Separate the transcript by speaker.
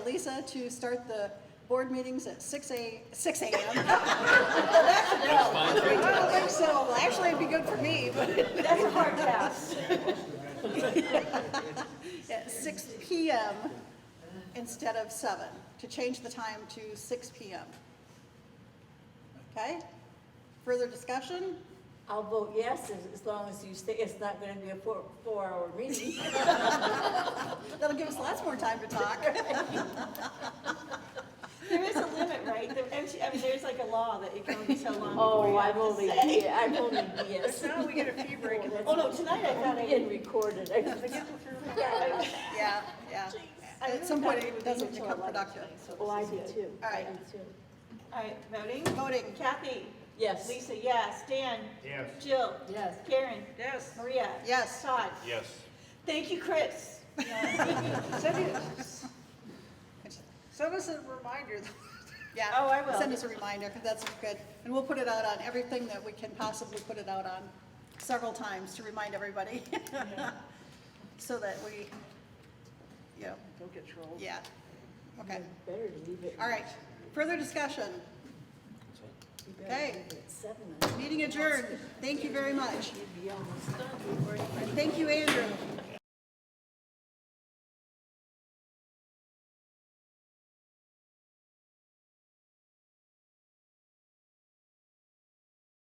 Speaker 1: Lisa to start the board meetings at 6 a, 6 a.m.
Speaker 2: fine,
Speaker 1: I don't think so. Well, Actually, it'd be good for me, but
Speaker 3: That's a hard pass.
Speaker 1: at 6 p.m. instead of 7, to change the time to 6 p.m. Okay? Further discussion?
Speaker 3: I'll vote yes, as, as long as you say it's not gonna be a four, four-hour meeting.
Speaker 1: That'll give us lots more time to talk.
Speaker 4: There is a limit, right? There- and she- I mean, there's like a law that it can only be so long before
Speaker 3: Oh,
Speaker 4: you
Speaker 3: I
Speaker 4: have
Speaker 3: will
Speaker 4: to
Speaker 3: be,
Speaker 4: say.
Speaker 3: yeah, I will be, yes.
Speaker 5: Now we get a fee break and
Speaker 4: Oh, no, tonight I thought I
Speaker 3: And
Speaker 4: did.
Speaker 3: recorded.
Speaker 1: Yeah, yeah. At some point, it doesn't become productive.
Speaker 3: Oh, I do too.
Speaker 1: All right.
Speaker 3: I do too.
Speaker 4: All right, voting?
Speaker 1: Voting.
Speaker 4: Kathy?
Speaker 3: Yes.
Speaker 4: Lisa, yes. Dan?
Speaker 2: Yes.
Speaker 4: Jill?
Speaker 3: Yes.
Speaker 4: Karen?
Speaker 5: Yes.
Speaker 4: Maria?
Speaker 1: Yes.
Speaker 4: Todd?
Speaker 2: Yes.
Speaker 4: Thank you, Chris.
Speaker 5: Send us- Send us a reminder.
Speaker 1: Yeah.
Speaker 4: Oh, I will.
Speaker 1: Send us a reminder, because that's good. And we'll put it out on everything that we can possibly put it out on several times to remind everybody. So that we, yeah,
Speaker 5: Don't get trolled.
Speaker 1: yeah. Okay,
Speaker 3: Better leave it.
Speaker 1: all right. Further discussion?
Speaker 3: You better
Speaker 1: okay.
Speaker 3: leave it at Seven, I
Speaker 1: Meeting adjourned. Thank you very much.
Speaker 3: should be almost done.
Speaker 1: Thank you, Andrew.